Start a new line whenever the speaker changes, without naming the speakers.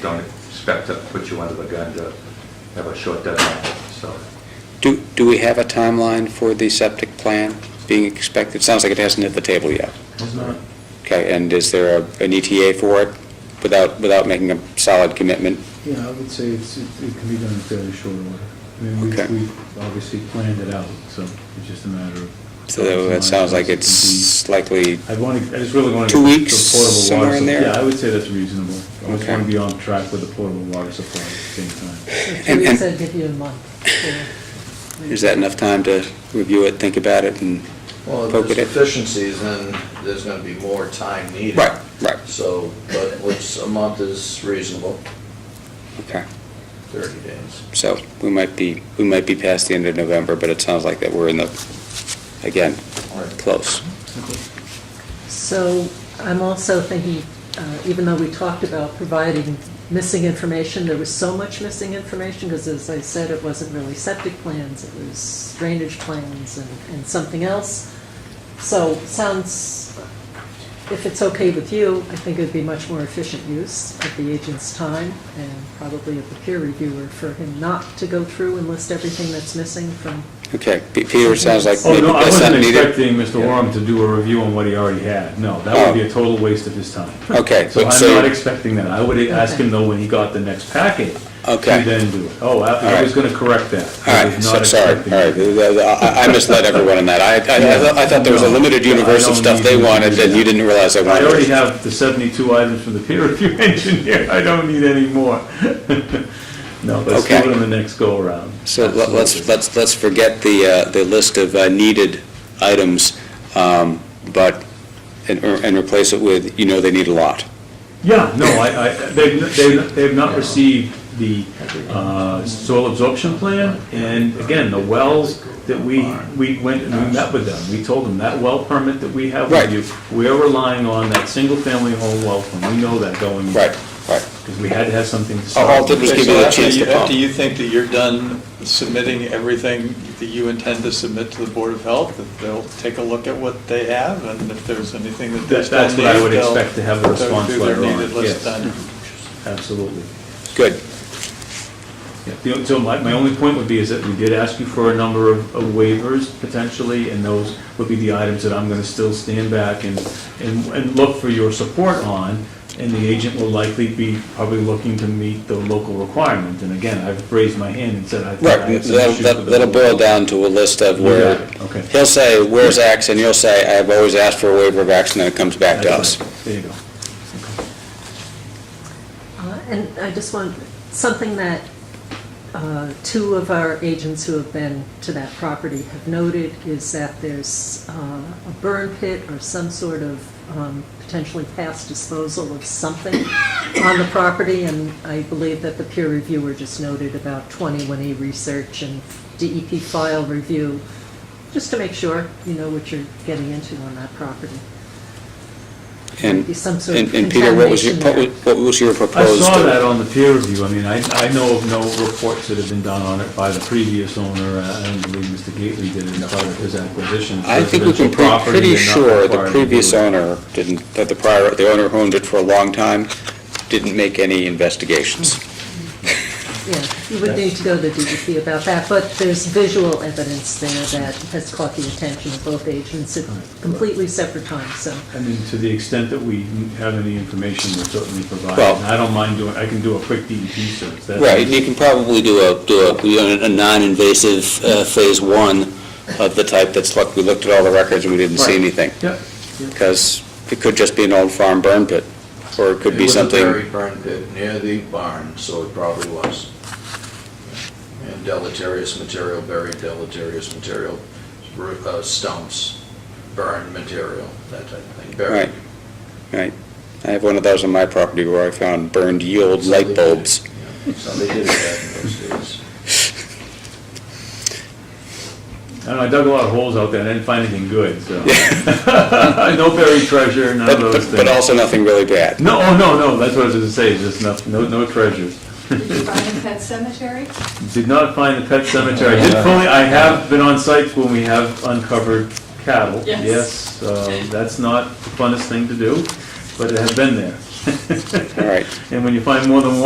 don't expect to put you under the gun to have a short deadline, so.
Do, do we have a timeline for the septic plan being expected? It sounds like it hasn't hit the table yet.
It's not.
Okay, and is there a- an ETA for it without, without making a solid commitment?
Yeah, I would say it's, it it can be done in fairly short order. I mean, we,
Okay.
we obviously planned it out, so it's just a matter of.
So that sounds like it's likely,
I'd want to, I just really want to.
Two weeks, somewhere in there?
Yeah, I would say that's reasonable. I just
Okay.
want to be on track with the portable water supply at the same time.
And-
Two weeks,
and-
I'd give you a month. yeah.
is that enough time to review it, think about it, and
Well, if
poke at
there's
it?
deficiencies, then there's gonna be more time needed.
Right, right.
So, but what's, a month is reasonable,
Okay,
thirty days.
so we might be, we might be past the end of November, but it sounds like that we're in the, again,
Right.
close.
So I'm also thinking, uh, even though we talked about providing missing information, there was so much missing information, because as I said, it wasn't really septic plans, it was drainage plans and and something else. So sounds, if it's okay with you, I think it'd be much more efficient use of the agent's time and probably of the peer reviewer for him not to go through and list everything that's missing from
Okay, P- Peter, it sounds like
Oh,
maybe
no, I
that's not
wasn't
needed.
expecting Mr. Warham to do a review on what he already had. No, that would be a total waste of his time.
Oh. Okay,
So
but
I'm
so-
not expecting that. I would ask him though when he got the next packet.
Okay.
To then do it. Oh, I I was going to correct that.
All
I
right,
was
so-
not
sorry, all
expecting
right,
that.
I I misled everyone on that. I, I- I thought- I thought there was a limited universe of stuff they wanted that you didn't realize they
I
wanted.
already have the 72 items from the peer review engineer, I don't need any more. No, let's do
Okay.
it on the next go-around.
So let- let's, let's, let's forget the, uh, the list of uh, needed items, um, but, and and replace it with, you know they need a lot.
Yeah, no, I, I, they've, they've, they've not received the, uh, soil absorption plan, and again, the wells that we, we went and we met with them, we told them that well permit that we have
Right.
with you, we're relying on that single-family home well permit, we know that going. in.
right.
Because we had to have something to
All- all
start
the-
with.
Just give
Okay, so
you a
after
chance
you-
to pump.
After you think that you're done submitting everything that you intend to submit to the Board of Health, that they'll take a look at what they have, and if there's anything that they
That-
still
that's what I would
need, they'll-
expect to have a
they'll do
response
their
later on,
needed list
yes.
done.
Absolutely.
Good.
Yeah, the- So my, my only point would be is that we did ask you for a number of of waivers potentially, and those would be the items that I'm gonna still stand back and, and, and look for your support on, and the agent will likely be probably looking to meet the local requirement. And again, I've raised my hand and said I think I
Right,
have some issues
that'll
with the
that'll boil down to a list of
You got
where,
it, okay.
he'll say, where's X, and you'll say, I've always asked for a waiver of X, and then it comes back to us.
That's right. There you go.
Uh, And I just want, something that uh, two of our agents who have been to that property have noted is that there's uh, a burn pit or some sort of um, potentially past disposal of something on the property, and I believe that the peer reviewer just noted about 21A research and DEP file review, just to make sure you know what you're getting into on that property.
And,
Be some sort
and
of
and Peter, what was your, what was-
contamination
what was your
I
proposed?
saw that on the peer review, I mean, I, I know of no reports that have been done on it by the previous owner, Uh, I don't believe Mr. Gately did it as part of his acquisition. of
I think we can
residential
be
property
pretty
and not
sure the
required to do
previous
it.
owner didn't, that the prior, the owner who owned it for a long time, didn't make any investigations.
Yeah, you would need to go to DEP about that, but there's visual evidence there that has caught the attention of both agents at completely separate times, so.
I mean, to the extent that we have any information, we'll certainly provide.
Well-
And I don't mind doing, I can do a quick DEP search. That's-
Right, and you can probably do a, do a, you know, a non-invasive uh, phase one of the type that's, look, we looked at all the records and we didn't see
Right.
anything.
Yep.
Because it could just be an old farm burn pit, or it could be
It was
something,
a very burn pit near the barn, so it probably was. And deleterious material, buried deleterious material, ru- uh, stumps, burned material, that type of thing, buried.
right, right. I have one of those on my property where I found burned yield light bulbs.
So they did it back in those days.
I don't know, I dug a lot of holes out there, and I didn't find anything good, so. No buried treasure, none
But,
of those
but
things.
but also nothing really bad.
No, oh, no, no, that's what I was gonna say, just no, no, no treasures.
Did you find a pet cemetery?
Did not find the pet cemetery. I did fully, I have been on sites when we have uncovered cattle.
Yes.
Yes, uh, that's not the funnest thing to do, but it has been there.
All right.
And when you find more than one.